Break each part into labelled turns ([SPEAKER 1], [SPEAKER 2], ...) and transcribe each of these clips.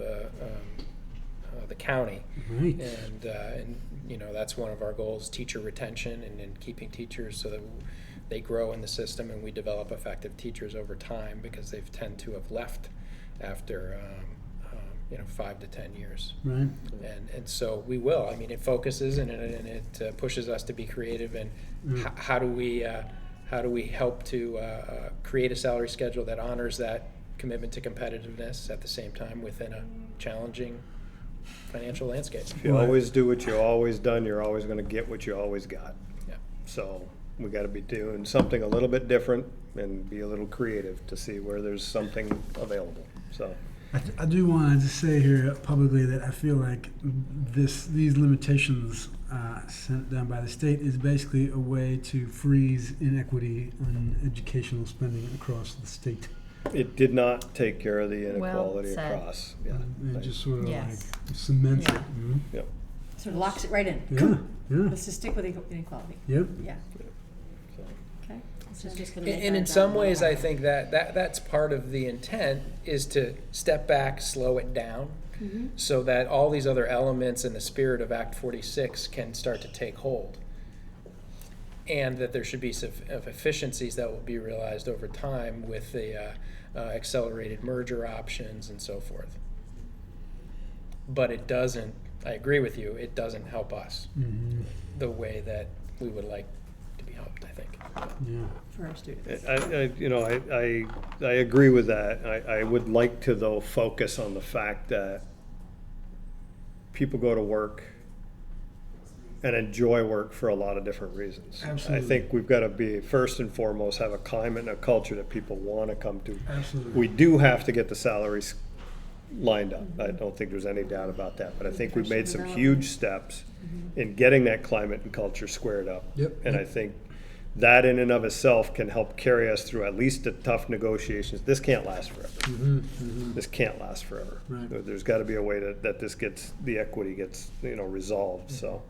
[SPEAKER 1] um, uh, county.
[SPEAKER 2] Right.
[SPEAKER 1] And, uh, and, you know, that's one of our goals, teacher retention and, and keeping teachers so that they grow in the system and we develop effective teachers over time because they've tend to have left after, um, um, you know, five to 10 years.
[SPEAKER 2] Right.
[SPEAKER 1] And, and so we will. I mean, it focuses and it, and it uh, pushes us to be creative and
[SPEAKER 2] Mm.
[SPEAKER 1] h- how do we uh, how do we help to uh, uh, create a salary schedule that honors that commitment to competitiveness at the same time within a challenging financial landscape.
[SPEAKER 3] If you always do what you always done, you're always gonna get what you always got.
[SPEAKER 1] Yeah.
[SPEAKER 3] So we gotta be doing something a little bit different and be a little creative to see where there's something available, so.
[SPEAKER 2] I, I do want to say here publicly that I feel like this these limitations uh, sent down by the state is basically a way to freeze inequity on educational spending across the state.
[SPEAKER 3] It did not take care of the
[SPEAKER 4] Well
[SPEAKER 3] inequality
[SPEAKER 4] said.
[SPEAKER 3] across, yeah.
[SPEAKER 2] And Mm-hmm. it just sort of
[SPEAKER 4] Yes.
[SPEAKER 2] like cements
[SPEAKER 5] Yeah.
[SPEAKER 2] it. Mhm.
[SPEAKER 3] Yep.
[SPEAKER 5] Sort of locks it right in.
[SPEAKER 2] Yeah. Yeah.
[SPEAKER 5] Let's just stick with equal- inequality.
[SPEAKER 2] Yep.
[SPEAKER 5] Yeah,
[SPEAKER 3] So,
[SPEAKER 5] okay.
[SPEAKER 4] So I'm just gonna make
[SPEAKER 1] And
[SPEAKER 4] that
[SPEAKER 1] in
[SPEAKER 4] a
[SPEAKER 1] some
[SPEAKER 4] dollar.
[SPEAKER 1] ways, I think that, that that's part of the intent is to step back, slow it down, so that all these other elements in the spirit of Act 46 can start to take hold. And that there should be suf- of efficiencies that will be realized over time with the uh, uh, accelerated merger options and so forth. But it doesn't, I agree with you, it doesn't help us
[SPEAKER 2] hmm
[SPEAKER 1] the way that we would like to be helped, I think.
[SPEAKER 2] Yeah.
[SPEAKER 5] For our students.
[SPEAKER 3] I, I, you know, I, I, I agree with that. I, I would like to though focus on the fact that people go to work and enjoy work for a lot of different reasons. I
[SPEAKER 2] Absolutely.
[SPEAKER 3] think we've got to be, first and foremost, have a climate and a culture that people want to come to.
[SPEAKER 2] Absolutely.
[SPEAKER 3] We do have to get the salaries lined up. I don't think there's any doubt about that, but I think we've made some huge steps in getting that climate and culture squared up.
[SPEAKER 2] Yep.
[SPEAKER 3] And I think that in and of itself can help carry us through at least the tough negotiations. This can't last forever.
[SPEAKER 2] hmm hmm
[SPEAKER 3] This can't last forever.
[SPEAKER 2] Right.
[SPEAKER 3] There- There's gotta be a way that, that this gets, the equity gets, you know, resolved, so.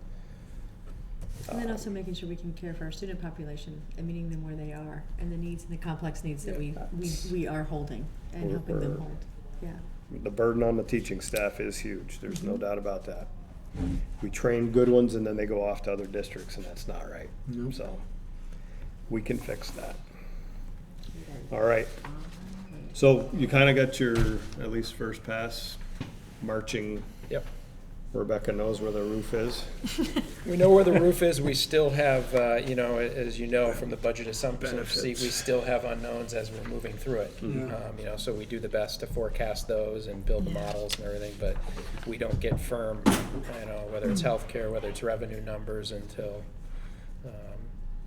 [SPEAKER 5] And then also making sure we can care for our student population and meeting them where they are and the needs and the complex needs that we, we, we are holding and
[SPEAKER 3] We're-
[SPEAKER 5] helping them
[SPEAKER 3] we're-
[SPEAKER 5] hold. Yeah.
[SPEAKER 3] The burden on the teaching staff is huge, there's
[SPEAKER 2] Mm-hmm.
[SPEAKER 3] no doubt about that. We train good ones and then they go off to other districts and that's not right.
[SPEAKER 2] Nope.
[SPEAKER 3] So, we can fix that. All right. So you kinda got your, at least first pass, marching
[SPEAKER 1] Yep.
[SPEAKER 3] Rebecca knows where the roof is.
[SPEAKER 1] We know where the roof is, we still have, uh, you know, as you know from the budget assumptions seat, we
[SPEAKER 3] Benefits.
[SPEAKER 1] still have unknowns as we're moving through it.
[SPEAKER 2] Mhm. Yeah.
[SPEAKER 1] Um, You know, so we do the best to forecast those and build the models and everything, but we don't get firm, you know, whether
[SPEAKER 2] Mm-hmm.
[SPEAKER 1] it's healthcare, whether it's revenue numbers until, um,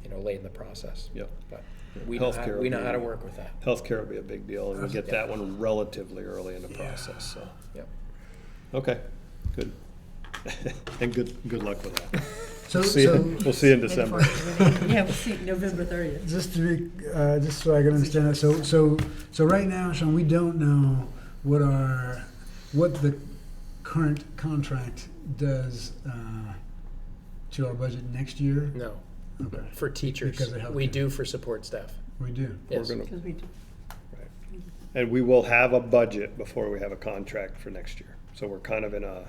[SPEAKER 1] you know, late in the process.
[SPEAKER 3] Yep.
[SPEAKER 1] But we know, how-
[SPEAKER 3] Healthcare
[SPEAKER 1] we know how to
[SPEAKER 3] will be-
[SPEAKER 1] work with that,
[SPEAKER 3] Healthcare will be a big deal, and we'll get that one relatively early in the process, so.
[SPEAKER 1] yep.
[SPEAKER 3] Okay, good. And good, good luck with that.
[SPEAKER 2] So,
[SPEAKER 3] See you- We'll see you in December.
[SPEAKER 5] Yeah, we'll see, November thirtieth.
[SPEAKER 2] just to be, uh, just so I can understand that, so, so, so right now, Sean, we don't know what our, what the current contract does, uh, to our budget next year?
[SPEAKER 1] No,
[SPEAKER 2] Okay,
[SPEAKER 1] for teachers,
[SPEAKER 2] Because of
[SPEAKER 1] we
[SPEAKER 2] healthcare.
[SPEAKER 1] do for support staff,
[SPEAKER 2] we do.
[SPEAKER 3] We're
[SPEAKER 1] yes.
[SPEAKER 3] gonna-
[SPEAKER 5] Cause we, do-
[SPEAKER 3] And we will have a budget before we have a contract for next year. So we're kind of in a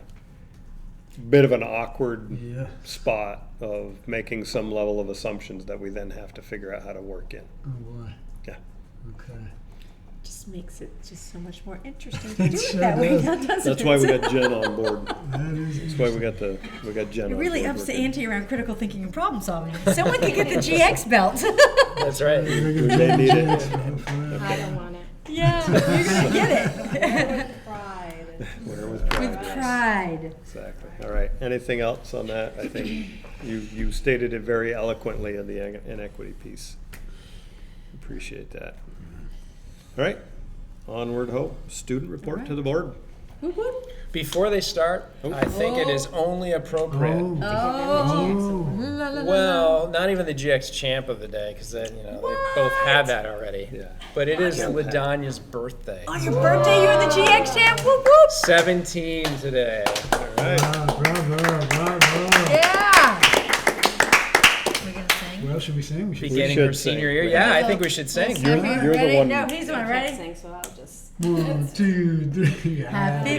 [SPEAKER 3] bit of an awkward
[SPEAKER 2] Yeah,
[SPEAKER 3] spot of making some level of assumptions that we then have to figure out how to work in.
[SPEAKER 2] oh boy,
[SPEAKER 3] Yeah.
[SPEAKER 2] okay.
[SPEAKER 5] just makes it just so much more interesting to
[SPEAKER 2] It
[SPEAKER 5] do it
[SPEAKER 2] sure
[SPEAKER 5] that way,
[SPEAKER 2] does.
[SPEAKER 5] now doesn't it?
[SPEAKER 3] That's why we got Jen on board.
[SPEAKER 2] That is,
[SPEAKER 3] That's why we got the, we got Jen on
[SPEAKER 5] It
[SPEAKER 3] board.
[SPEAKER 5] really ups the
[SPEAKER 3] working.
[SPEAKER 5] ante around critical thinking and problem solving. Someone could get the GX belt.
[SPEAKER 1] That's right.
[SPEAKER 2] we're gonna
[SPEAKER 3] They need it.
[SPEAKER 2] change it.
[SPEAKER 6] I don't want it.
[SPEAKER 5] Yeah, you're gonna get it.
[SPEAKER 6] Pride.
[SPEAKER 3] Wear with pride.
[SPEAKER 5] With pride.
[SPEAKER 3] Exactly. All right. Anything else on that? I think you, you stated it very eloquently in the ine- inequity piece. Appreciate that. All right. Onward hope. Student report to the board.
[SPEAKER 5] Whoop, whoop.
[SPEAKER 1] Before they start, I think it is only appropriate
[SPEAKER 2] Oh,
[SPEAKER 5] Oh.
[SPEAKER 2] oh,
[SPEAKER 5] La, la, la, la.
[SPEAKER 1] Well, not even the GX champ of the day, because then you know they both had that already.
[SPEAKER 3] Yeah.
[SPEAKER 1] But it is
[SPEAKER 3] Yeah.
[SPEAKER 1] Ladonya's birthday.
[SPEAKER 5] On your birthday, you're the GX champ. Whoop, whoop.
[SPEAKER 1] Seventeen today.
[SPEAKER 3] All right.
[SPEAKER 2] Ah, bravo, bravo.
[SPEAKER 5] Yeah.
[SPEAKER 4] We're gonna sing.
[SPEAKER 2] Well, should we sing? We should.
[SPEAKER 1] Beginning
[SPEAKER 3] should
[SPEAKER 1] her senior
[SPEAKER 3] sing.
[SPEAKER 1] year. Yeah, I think we should sing.
[SPEAKER 3] You're, you're the
[SPEAKER 5] Ready?
[SPEAKER 3] one.
[SPEAKER 5] No, he's the one.
[SPEAKER 6] I can't
[SPEAKER 5] Ready?
[SPEAKER 6] sing, so I'll just.
[SPEAKER 2] One, two, three.
[SPEAKER 4] Happy